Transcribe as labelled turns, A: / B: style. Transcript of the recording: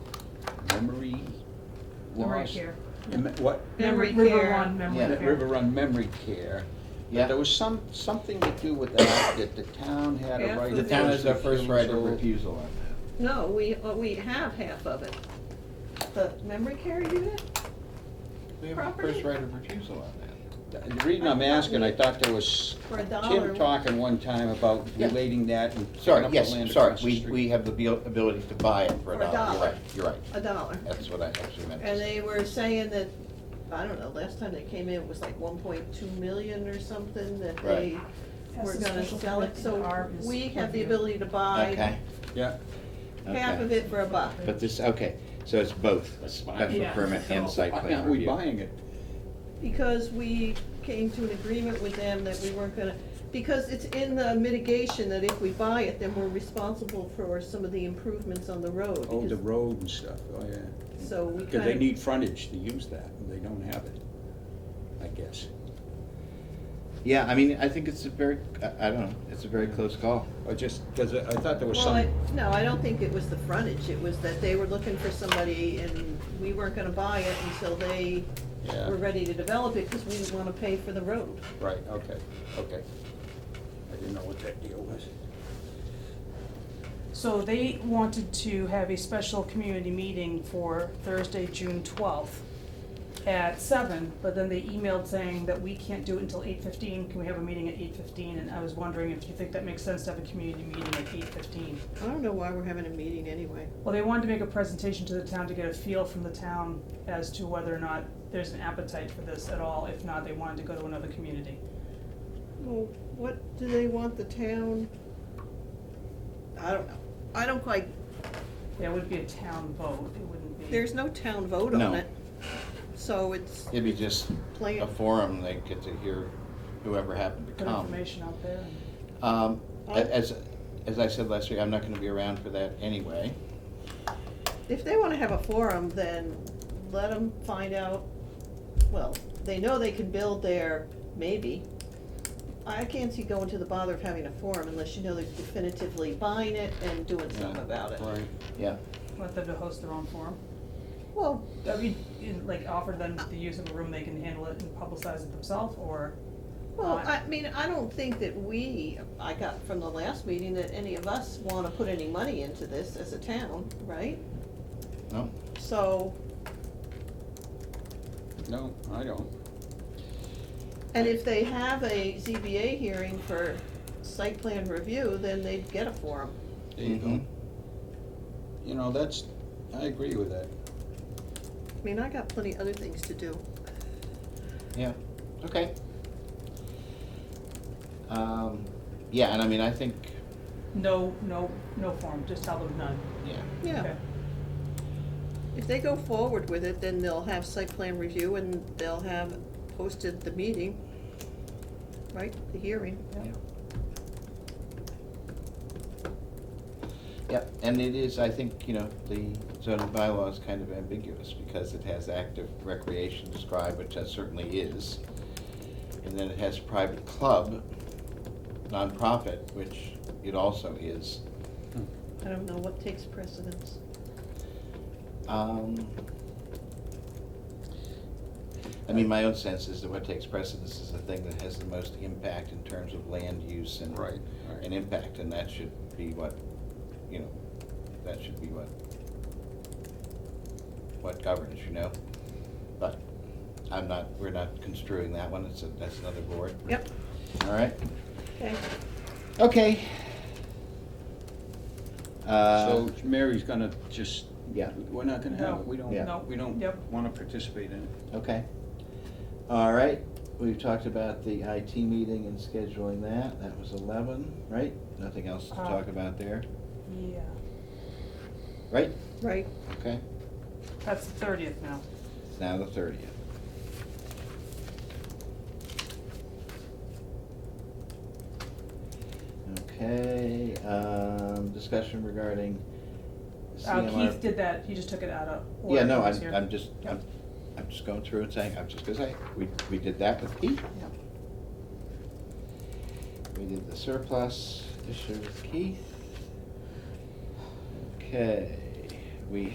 A: Memory
B: lost.
A: care.
B: em- What?
A: Memory
C: River
A: care.
C: Run memory
B: Yeah,
C: care.
B: River Run Memory Care.
D: Yeah.
B: But there was some, something to do with that, that the town had a
A: Yeah.
B: right.
D: The
B: of
D: town
B: first
D: has the first right of
B: refusal.
D: refusal on that.
A: No, we, uh, we have half of it. The memory care unit?
D: We have the
A: Property.
D: first right of refusal on that.
B: The reason I'm asking, I thought there was
A: For a dollar.
B: Tim talking one time about
D: Yeah.
B: relating that and picking
D: Sorry,
B: up the land
D: yes, sorry,
B: across the
D: we, we
B: street.
D: have the abil- ability to buy it for
A: For
D: a
A: a
D: dollar, you're
A: dollar.
D: right, you're right,
A: A dollar.
D: that's what I actually meant. to
A: And
D: say.
A: they were saying that, I don't know, last time they came in, it was like one point two million or something that they
D: Right.
C: Has
A: were
C: a
A: gonna
C: special
A: sell it,
C: permit
A: so
C: in our-
A: we have the
C: review.
A: ability to
D: Okay,
A: buy
B: Yeah,
A: half
D: Okay.
A: of it for a buck.
D: but this, okay, so it's both, a special
C: Yeah.
D: permit and site
B: why
D: plan
B: aren't we
D: review.
B: buying it?
A: Because we came to an agreement with them that we weren't gonna, because it's in the mitigation that if we buy it, then we're responsible for some of the improvements on the road.
B: Oh, the
A: because-
B: road and stuff, oh, yeah.
A: So we
B: Because they
A: kind
B: need frontage to use that, and they don't have it, I guess.
D: Yeah, I mean, I think it's a very, I, I don't know, it's a very close call.
B: Or just, because I thought there was
A: Well,
B: some,
A: I, no, I don't think it was the frontage, it was that they were looking for somebody and we weren't gonna buy it until they were
B: yeah,
A: ready to develop it, cause we didn't wanna pay for the road.
B: right, okay, okay. I didn't know what that deal was.
C: So they wanted to have a special community meeting for Thursday, June twelfth at seven, but then they emailed saying that we can't do it until eight fifteen, can we have a meeting at eight fifteen? And I was wondering if you think that makes sense to have a community meeting at eight fifteen?
A: I don't know why we're having a meeting anyway.
C: Well, they wanted to make a presentation to the town to get a feel from the town as to whether or not there's an appetite for this at all, if not, they wanted to go to another community.
A: Well, what do they want the town? I don't know, I don't quite,
C: There would be a town vote, it wouldn't be.
A: there's no town vote
D: No.
A: on it. So it's
D: It'd be just
A: plan,
D: a forum, they get to hear whoever happened to
C: Good
B: Oh.
D: come.
C: information out there. and-
D: Um,
A: Oh.
D: a- as, as I said last week, I'm not gonna be around for that anyway.
A: if they wanna have a forum, then let them find out, well, they know they can build there, maybe. I can't see going to the bother of having a forum unless you know they're definitively buying it and doing something
D: Yeah,
A: about it.
B: Right.
D: Yeah,
C: Let them to host their own forum.
A: Well,
C: I mean, in- like offer them the use of a room, they can handle it and publicize it themselves, or,
A: Well,
C: Uh,
A: I mean, I don't think that we, I got from the last meeting that any of us wanna put any money into this as a town, right?
D: no,
A: So,
B: No, I don't.
A: and if they have a ZBA hearing for site plan review, then they'd get a forum.
B: There you go.
D: Mhm. Mm-hmm.
B: You know, that's, I agree with that.
A: I mean, I got plenty other things to do.
D: yeah, okay. Um, yeah, and I mean, I think,
C: no, no, no forum, just tell them none.
D: yeah,
A: Yeah,
C: Okay.
A: if they go forward with it, then they'll have site plan review and they'll have posted the meeting, right, the hearing.
D: yeah. Yeah, and it is, I think, you know, the zoning bylaw is kind of ambiguous because it has active recreation described, which that certainly is. And then it has private club, nonprofit, which it also is.
A: I don't know what takes precedence.
D: Um, I mean, my own sense is that what takes precedence is the thing that has the most impact in terms of land use and.
B: Right, right.
D: And impact, and that should be what, you know, that should be what, what governs, you know? But I'm not, we're not construing that one, it's, a- that's another board.
A: Yep,
D: All right,
A: okay.
D: okay. Uh,
B: So Mary's gonna just,
D: yeah.
B: we're not gonna have
C: No,
B: it, we
D: Yeah.
C: no,
B: don't, we don't
C: yep.
B: wanna participate in it.
D: Okay. All right, we've talked about the IT meeting and scheduling that, that was eleven, right? Nothing else to
C: Uh.
D: talk about there,
C: Yeah,
D: right?
A: Right.
D: Okay,
C: that's the thirtieth now.
D: it's now the thirtieth. Okay, um, discussion regarding
C: Uh,
D: CMR.
C: Keith did that, he just took it out of order.
D: Yeah, no,
C: He was
D: I'm,
C: here.
D: I'm just, I'm, I'm just going through and saying, I'm just gonna say, we, we did that with Pete.
C: Yeah.
D: We did the surplus issue with Keith. Okay, we